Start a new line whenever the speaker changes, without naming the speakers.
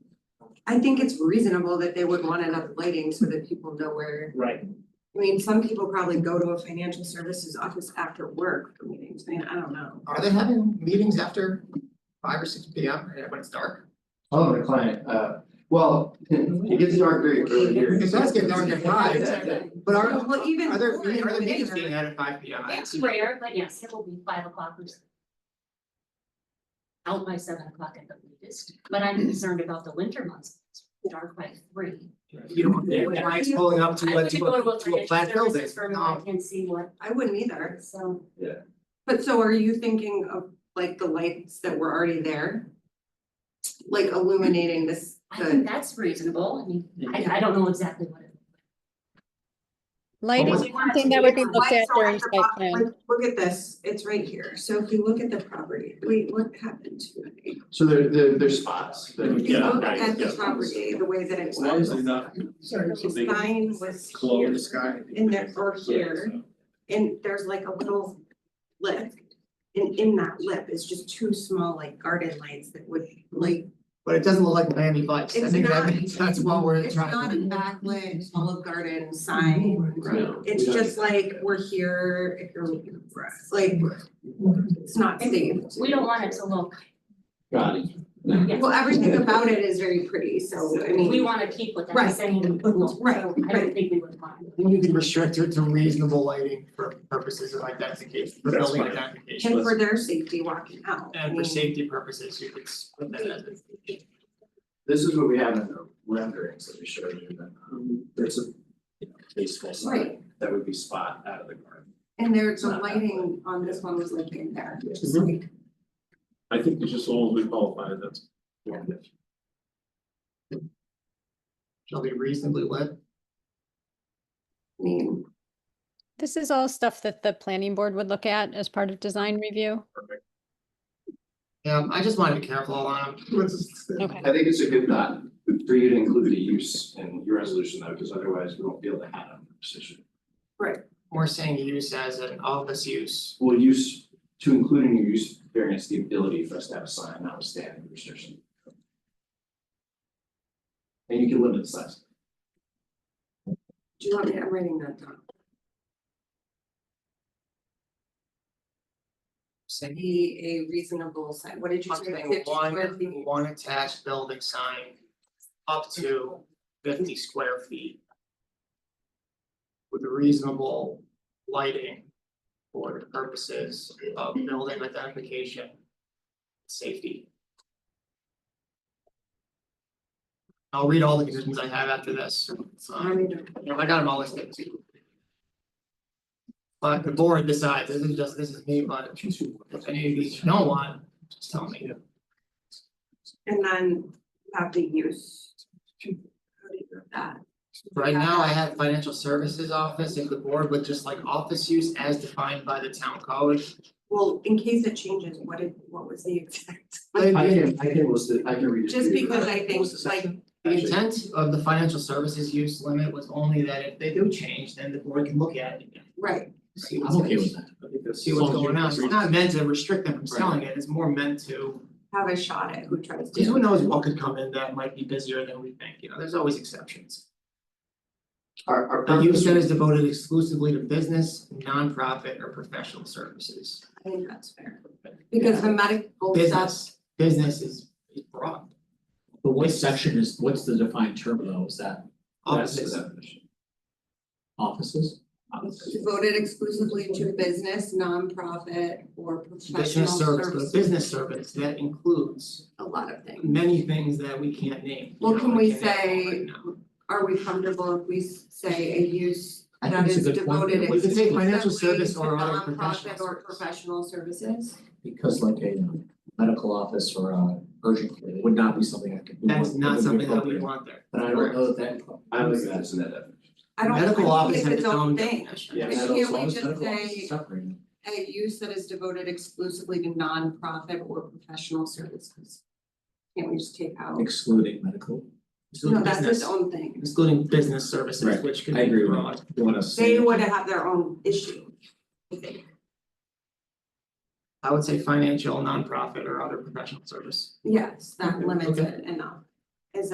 I think it's reasonable that they would want enough lighting so that people know where.
Right.
I mean, some people probably go to a financial services office after work for meetings, I mean, I don't know.
Are they having meetings after five or six P M when it's dark?
Oh, the client, uh, well, it gets dark very early here.
It does get dark at five,
Yeah,
but are
Well, even.
are there,
before
meeting- are there
illumination,
meetings being had at five P M?
It's rare, but yes, it will be five o'clock or so. Out by seven o'clock at the latest, but I'm concerned about the winter months, It's dark by three.
You don't, want the lights pulling up to a, to a, to a flat building,
I
no,
wouldn't go to a financial services firm, I can see what,
I wouldn't either,
so,
but so are you thinking of like the lights that were already there? Like illuminating this,
I think
the,
that's reasonable, I mean, I I don't know exactly what it.
Lighting
Well,
is
we
something that would be looked at
Lights are
during
the
site plan.
look, look at this, it's right here, so if you look at the property, wait, what happened to it?
So there, there, there's spots that.
If you look at the property, the way that it's.
Why is it not? so
The
big?
sign was
Close
here.
the sky.
In there or here, and there's like a little lip. And in that lip is just two small like garden lights that would like,
but it doesn't look like Miami Vice, I
It's
think that
not.
means that's what we're
it's not a
trying to.
backlit Olive
Mm-hmm.
Garden sign.
No,
It's
we don't-
just like, we're here if you're looking for us, like, it's not safe.
We don't want it to look,
Got it.
yeah,
Well, everything about it is very pretty, so I mean.
we wanna keep with that
Right.
same look, so
Right,
I
right.
don't think we would want.
You need to restrict it to reasonable lighting for purposes of identification, for
That's
building
fine.
identification.
And for their safety walking out. I
And for
mean,
safety purposes, you could put that as a.
This is what we have in the renderings that we showed you, that, um, there's a, you know, baseball sign that would be spot out of the garden.
And there's the
Not that
lighting on this one was like in there,
Yeah.
just like.
I think it's just all we qualify, that's.
shall be reasonably lit.
I mean,
This is all stuff that the planning board would look at as part of design review.
Yeah, I just wanted to be careful on them.
Okay.
I think it's a good thought for you to include the use in your resolution though, because otherwise we won't be able to have a decision.
We're saying use as an all this use.
We'll use, to include in your use variance, the ability for us to have a sign notwithstanding the restriction. And you can limit the size.
do you want me, I'm writing that down.
Saying
Be a reasonable sign, what did you say?
something
50
one,
square feet?
one attached building sign up to fifty square feet. With reasonable lighting for the purposes of building identification. Safety. I'll read all the conditions I have after this,
I
so,
mean,
you know, I got them all listed. But the board decides, this is just, this is me, but if any of these you don't want, just tell me.
And then have the use. How do you do that?
Right now, I have financial services office, if the board would just like office use as defined by the town code.
Well, in case it changes, what did, what was the exact?
I
The
can, I can list it, I can read it.
Just
to you.
because I think
What's the
like,
section? Actually,
intent of the financial services use limit was only that if they do change, then the board can look at it again.
right,
See what's,
that.
I think that's.
see what's going on, it's not meant to restrict them from selling it, it's more meant to,
have a shot at who tries to.
because who knows what could come in that might be busier than we think, you know, there's always exceptions.
Our, our
A use
purpose,
that is devoted exclusively to business, nonprofit or professional services.
I think that's fair, because the medical stuff,
Business, business is is broad,
But what section is, what's the defined term though, is that
that's the
offices.
definition.
offices?
devoted exclusively to business, nonprofit, or professional
business service, but
service,
business service, that includes
a lot of things.
many things that we can't name. you
Well,
know,
can we
can't name
say-
right now.
Are we comfortable if we s- say a use
I
that
think it's a
is
good point.
devoted
We could say
exclusively
financial service
to
or other
nonprofit
professional
or
service.
professional services?
Because like a um, medical office or a urgent care would not be something I could. we
That is
want-
not
would be
something that we
appropriate.
want there.
But I don't know that.
I would say that's in that definition.
I don't, I
Medical
don't
office
think
has
it's its own thing,
definition.
Yeah,
But
medical-
can't
as long
we
as
just
medical office
say-
is separated.
a use that is devoted exclusively to nonprofit or professional services. Can't we just take out?
Excluding medical.
No,
Excluding
that's its
business,
own thing.
excluding business services,
Right,
which could
I
be
agree with
broad.
You wanna say.
They would have their own issue.
I would say financial, nonprofit or other professional service.
Yes, that limits
Okay.
it enough.